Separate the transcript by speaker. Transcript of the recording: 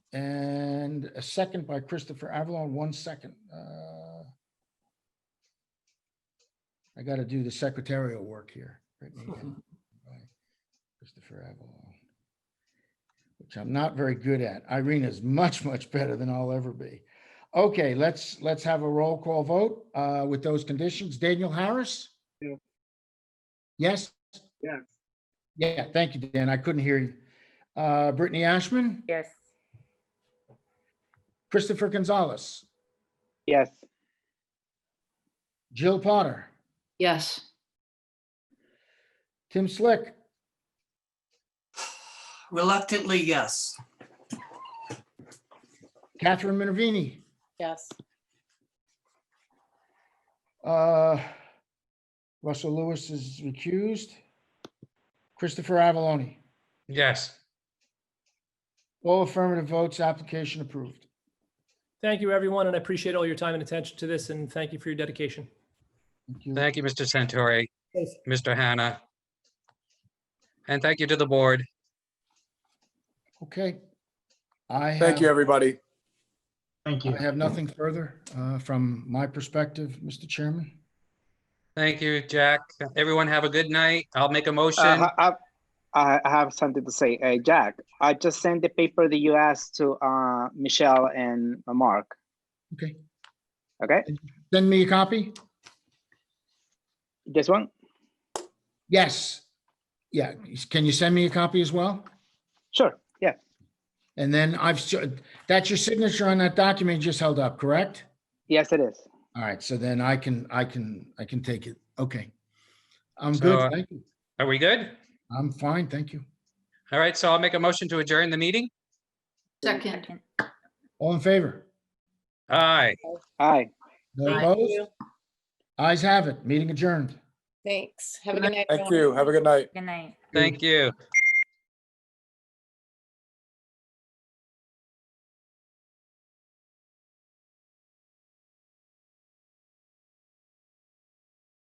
Speaker 1: And a second by Christopher Avalon, one second. uh, I got to do the secretarial work here. Brittany, and by Christopher Avalon. Which I'm not very good at. Irene is much, much better than I'll ever be. Okay, let's, let's have a roll call vote uh, with those conditions. Daniel Harris?
Speaker 2: Yeah.
Speaker 1: Yes?
Speaker 2: Yes.
Speaker 1: Yeah, thank you, Dan. I couldn't hear you. Uh, Brittany Ashman,
Speaker 3: Yes.
Speaker 1: Christopher Gonzalez,
Speaker 2: Yes.
Speaker 1: Jill Potter,
Speaker 3: Yes.
Speaker 1: Tim Slick,
Speaker 4: Reluctantly, yes.
Speaker 1: Catherine Minervini,
Speaker 3: Yes.
Speaker 1: uh, Russell Lewis is recused, Christopher Avaloni.
Speaker 5: Yes.
Speaker 1: All affirmative votes, application approved.
Speaker 6: Thank you, everyone, and I appreciate all your time and attention to this, and thank you for your dedication.
Speaker 1: Thank you.
Speaker 5: Thank you, Mr. Santori,
Speaker 6: Yes.
Speaker 5: Mr. Hannah. And thank you to the board.
Speaker 1: Okay. I
Speaker 7: Thank you,
Speaker 1: have,
Speaker 7: everybody.
Speaker 8: Thank you.
Speaker 1: I have nothing further uh, from my perspective, Mr. Chairman.
Speaker 5: Thank you, Jack. Everyone have a good night. I'll make a motion.
Speaker 2: Uh, I, I I have something to say, uh, Jack. I just sent the paper that you asked to uh, Michelle and Mark.
Speaker 1: Okay,
Speaker 2: Okay,
Speaker 1: send me a copy?
Speaker 2: this one.
Speaker 1: Yes. Yeah, can you send me a copy as well?
Speaker 2: Sure. Yeah.
Speaker 1: And then I've, s- that's your signature on that document you just held up, correct?
Speaker 2: Yes, it is.
Speaker 1: All right, so then I can, I can, I can take it. Okay. I'm
Speaker 5: So, uh,
Speaker 1: good, thank you.
Speaker 5: Are we good?
Speaker 1: I'm fine, thank you.
Speaker 5: All right, so I'll make a motion to adjourn the meeting.
Speaker 3: Second.
Speaker 1: All in favor?
Speaker 5: Aye.
Speaker 2: Hi.
Speaker 1: No opposed? Ayes have it, meeting adjourned.
Speaker 3: Thanks. Have a good night.
Speaker 7: Thank you. Have a good night.
Speaker 3: Good night.
Speaker 5: thank you.